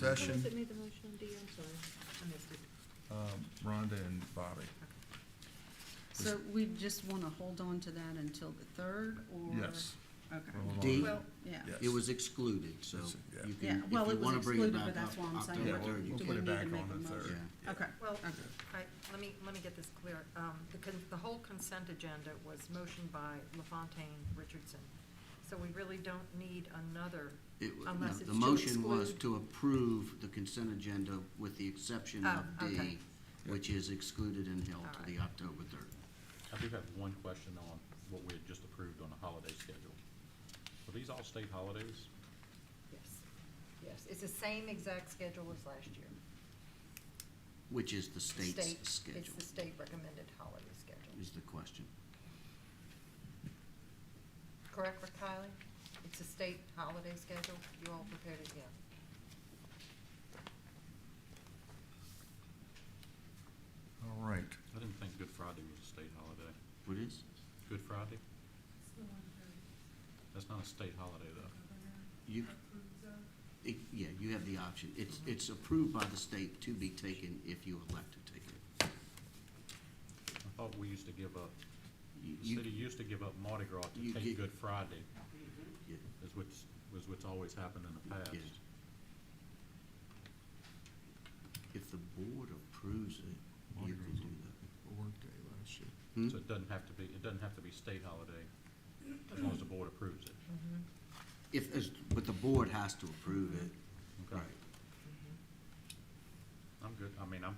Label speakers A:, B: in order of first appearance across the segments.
A: session,
B: Who made the motion, Dee? I'm sorry, I missed it.
A: um, Rhonda and Bobby.
C: So we just want to hold on to that until the third, or?
A: Yes.
C: Okay,
A: We'll hold on
D: D.
A: to
D: Well-
A: that.
C: yeah.
A: Yeah.
D: It was excluded, so
A: It's- yeah.
D: you
C: Yeah,
D: can, if
C: well,
D: you
C: it was
D: wanna bring it
C: excluded, but
D: back
C: that's
D: up,
C: why I'm saying,
A: Yeah,
C: we're-
A: we'll-
D: October, you
C: do
A: we'll
C: we
A: put
D: can.
A: it
C: need to
A: back
C: make
A: on
C: a
A: the third.
C: motion?
A: Yeah.
C: Okay,
E: Well,
C: okay.
E: I, let me, let me get this clear. Um, the con, the whole consent agenda was motioned by LaFontaine Richardson. So we really don't need another,
D: It wa-
E: Unless
D: no,
E: it's
D: The
E: to
D: motion was
E: exclude.
D: to approve the consent agenda with the exception
E: Oh,
D: of D,
E: okay.
D: which is excluded and held to
E: All
D: the
E: right.
D: October third.
F: I do have one question on what we had just approved on the holiday schedule. Were these all state holidays?
E: yes, yes. It's the same exact schedule as last year.
D: Which is the state's
E: State- It's
D: schedule,
E: the state recommended holiday schedule.
D: is the question.
E: Correct, Rick Kylie? It's a state holiday schedule. You all prepared it, yeah.
A: All right,
F: I didn't think Good Friday was a state holiday.
D: What is?
F: Good Friday? That's not a state holiday, though.
D: You, it- yeah, you have the option. It's, it's approved by the state to be taken if you elect to take it.
F: I thought we used to give up,
D: You-
F: the
D: you-
F: city used to give up Mardi Gras
D: you
F: to
D: get-
F: take Good Friday,
D: yeah,
F: is what's, was what's always happened in the past.
D: yeah. If the board approves it,
A: Mardi
D: you
A: Gras
D: can
A: is
D: do
A: on-
D: that.
A: workday last year.
D: Hmm?
F: So it doesn't have to be, it doesn't have to be state holiday, as long as the board approves it.
D: If, as- but the board has to approve it.
F: Okay. I'm good, I mean, I'm,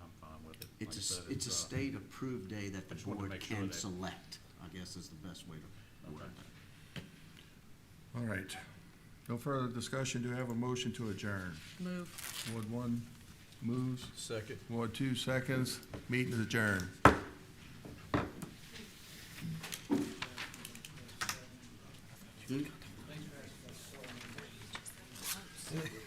F: I'm fine with it. Like I
D: It's a,
F: said,
D: s- it's a
F: uh,
D: state-approved day that the
F: just wanted to
D: board
F: make sure
D: can
F: that-
D: select, I guess is the best way to word
F: Okay.
D: that.
A: All right, no further discussion, do we have a motion to adjourn?
C: Move.
A: Ward one moves,
G: Second.
A: Ward two seconds, meeting is adjourned.
D: Hmm?